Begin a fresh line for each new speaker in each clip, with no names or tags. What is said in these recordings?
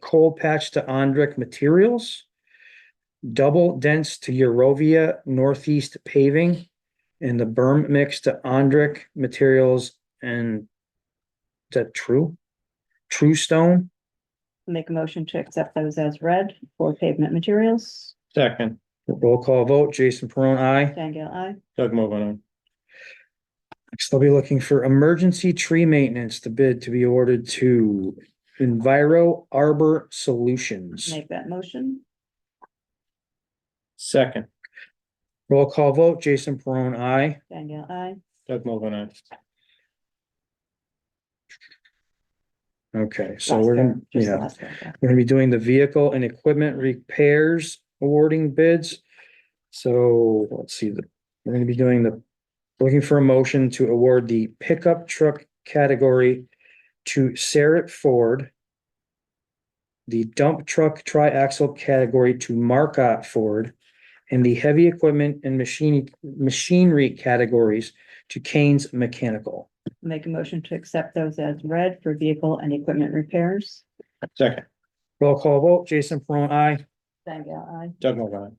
cold patch to Andrick Materials, double dense to Eurovia Northeast Paving, and the berm mix to Andrick Materials and is that true? True Stone?
Make a motion to accept those as read for pavement materials.
Second,
Roll call vote, Jason Peron, I.
Dangle, I.
Doug Mogul,
Next, I'll be looking for emergency tree maintenance, the bid to be ordered to Enviro Arbor Solutions.
Make that motion.
second,
Roll call vote, Jason Peron, I.
Dangle, I.
Doug Mogul,
Okay, so
Last
we're gonna,
one, just the
yeah,
last one,
we're gonna be doing the vehicle and equipment repairs awarding bids. So let's see, the, we're gonna be doing the, looking for a motion to award the pickup truck category to Sarah Ford. The dump truck tri-axle category to Marcotte Ford. And the heavy equipment and machine, machinery categories to Kane's Mechanical.
Make a motion to accept those as read for vehicle and equipment repairs.
second,
Roll call vote, Jason Peron, I.
Dangle, I.
Doug Mogul.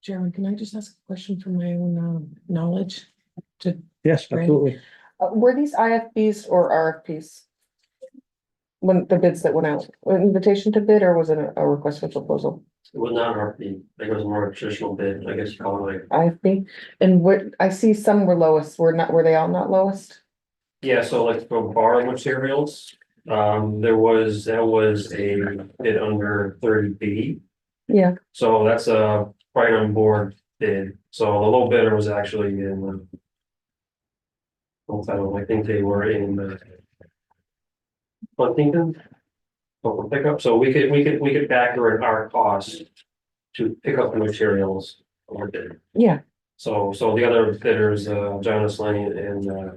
Sharon, can I just ask a question from my own um, knowledge? To,
Yes,
Right.
absolutely.
uh, were these IFBs or RFPs? When the bids that went out, an invitation to bid or was it a- a request for proposal?
Well, not RFP, I think it was more traditional bid, I guess you call it like,
IFB? And what, I see some were lowest, were not, were they all not lowest?
yeah, so like for borrowing materials. Um, there was, that was a bid under thirty B,
Yeah,
so that's a right on board bid, so the low bidder was actually in. um, Old I think they were in uh Huntington. Local pickup, so we could, we could, we could factor in our cost to pick up the materials or bid.
yeah,
So, so the other bidders, uh, Jonas Lane and, uh.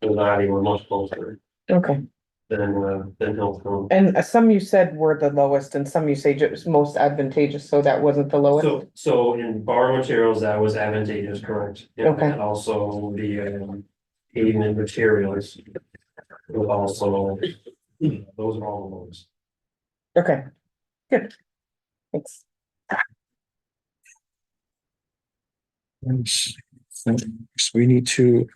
Donati were much closer
okay.
than, uh, than Hillstone.
And uh, some you said were the lowest and some you say ju- was most advantageous, so that wasn't the lowest?
So, so in borrow materials, that was advantageous, correct?
Okay.
And also the, um, pavement materials. Was also, those are all those.
Okay. Good. Thanks.
So we need to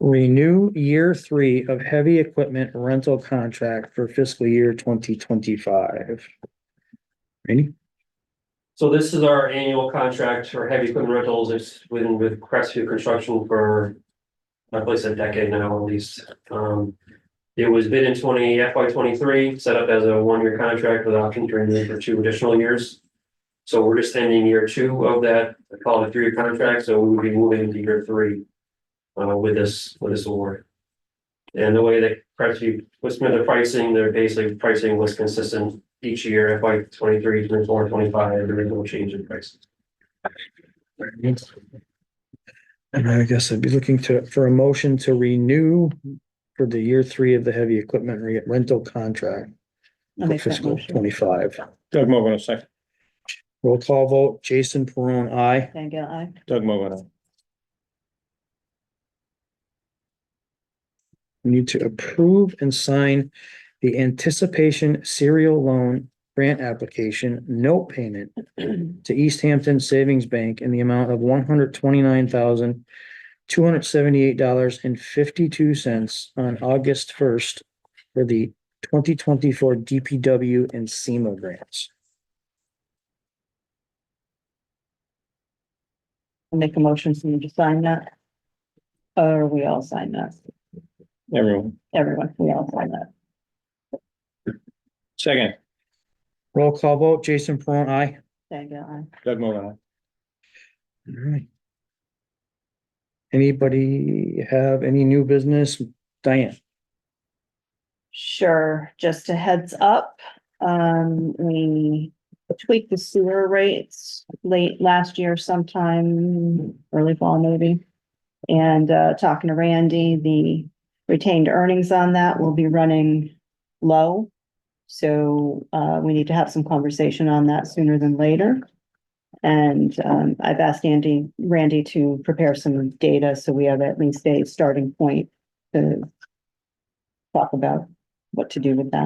renew year three of heavy equipment rental contract for fiscal year twenty twenty-five. Ready?
So this is our annual contract for heavy equipment rentals, it's within with Crestview Construction for. My place a decade now at least, um. It was bid in twenty FY twenty-three, set up as a one-year contract with option to renew for two additional years. So we're just ending year two of that, I call it a three-year contract, so we would be moving into year three. Uh, with this, with this award. And the way that Crestview, what's been the pricing, their basically pricing was consistent each year, FY 23, 24, 25. there is no change in price.
And I guess I'd be looking to, for a motion to renew for the year three of the heavy equipment re- rental contract for
I'll make that
fiscal
motion.
twenty-five.
Doug Mogul, second,
Roll call vote, Jason Peron, I.
Dangle, I.
Doug Mogul,
We need to approve and sign the anticipation serial loan grant application, note payment to East Hampton Savings Bank in the amount of one hundred twenty-nine thousand, two hundred seventy-eight dollars and fifty-two cents on August first for the twenty twenty-four DPW and SEMA grants.
Make a motion for you to sign that. Or we all sign that.
everyone,
Everyone, we all sign that.
second,
Roll call vote, Jason Peron, I.
Dangle, I.
Doug Mogul,
All right. Anybody have any new business? Diane?
Sure, just a heads up, um, we tweaked the sewer rates late last year sometime, early fall maybe. And, uh, talking to Randy, the retained earnings on that will be running low. So, uh, we need to have some conversation on that sooner than later. And, um, I've asked Andy, Randy to prepare some data, so we have at least a starting point to talk about what to do with that.